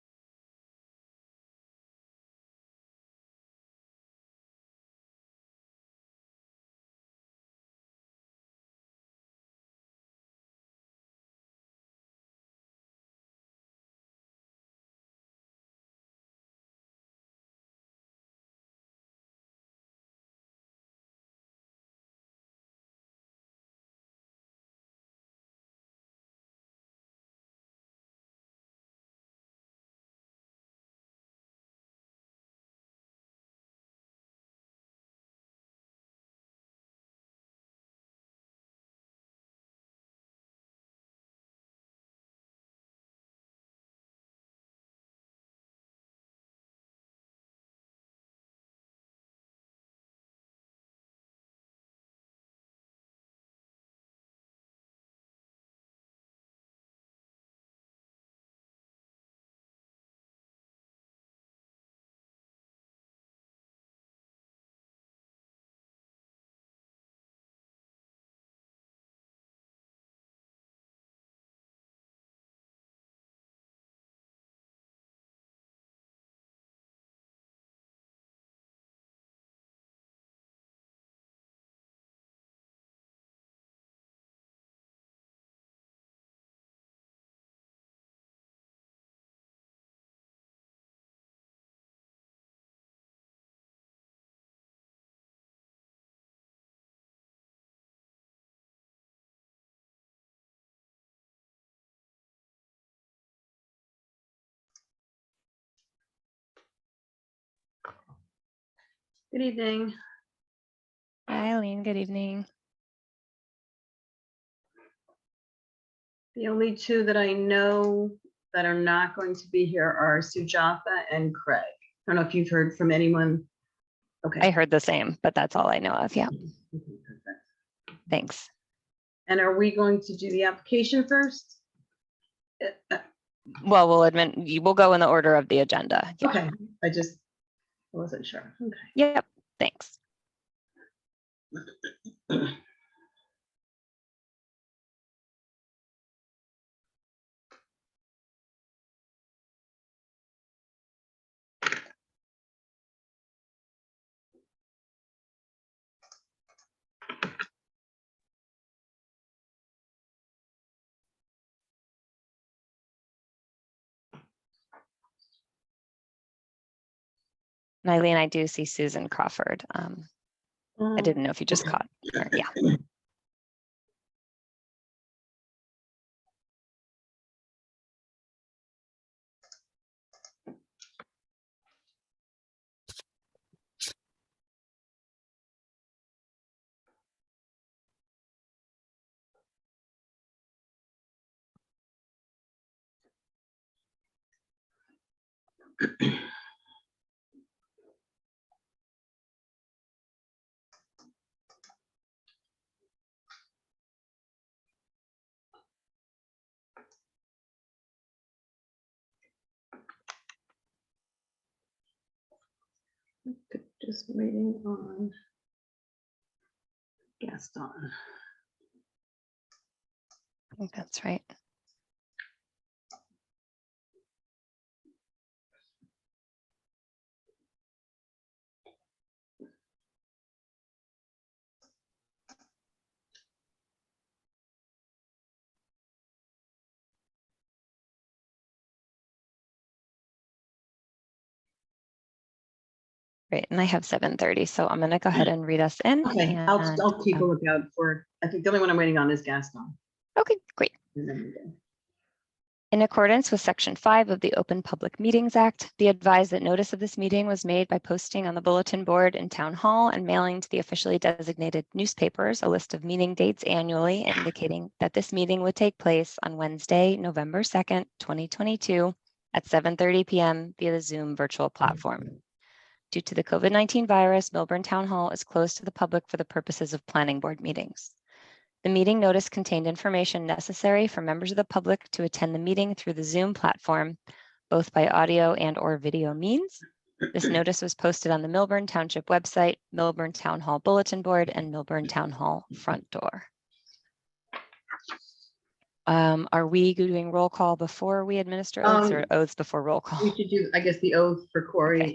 Good evening. Hi, Eileen. Good evening. The only two that I know that are not going to be here are Sujatha and Craig. I don't know if you've heard from anyone. I Okay. heard the same, but that's all I know of. Yeah, Okay, perfect. thanks. And are we going to do the application first? Uh, uh, Well, we'll admit, you will go in the order of the agenda. Yeah. Okay, I just I wasn't sure. Okay. Yep, thanks. And Eileen, I do see Susan Crawford. Um, I Um, didn't know if you just caught her. Yeah. Just waiting on Gaston. I think that's right. Great, and I have seven thirty, so I'm gonna go ahead and read us in. Mm. Okay, I'll, and, I'll keep a um, lookout for, I think the only one I'm waiting on is Gaston. Okay, great. And then we go. In accordance with Section 5 of the Open Public Meetings Act, be advised that notice of this meeting was made by posting on the bulletin board in Town Hall and mailing to the officially designated newspapers a list of meeting dates annually indicating that this meeting would take place on Wednesday, November 2nd, 2022 at 7:30 PM via the Zoom virtual platform. Due to the COVID-19 virus, Milburn Town Hall is closed to the public for the purposes of planning board meetings. The meeting notice contained information necessary for members of the public to attend the meeting through the Zoom platform, both by audio and or video means. This notice was posted on the Milburn Township website, Milburn Town Hall Bulletin Board, and Milburn Town Hall Front Door. Um, are we doing roll call before we administer oaths Um, or oaths before roll call? We should do, I guess, the oath for Corey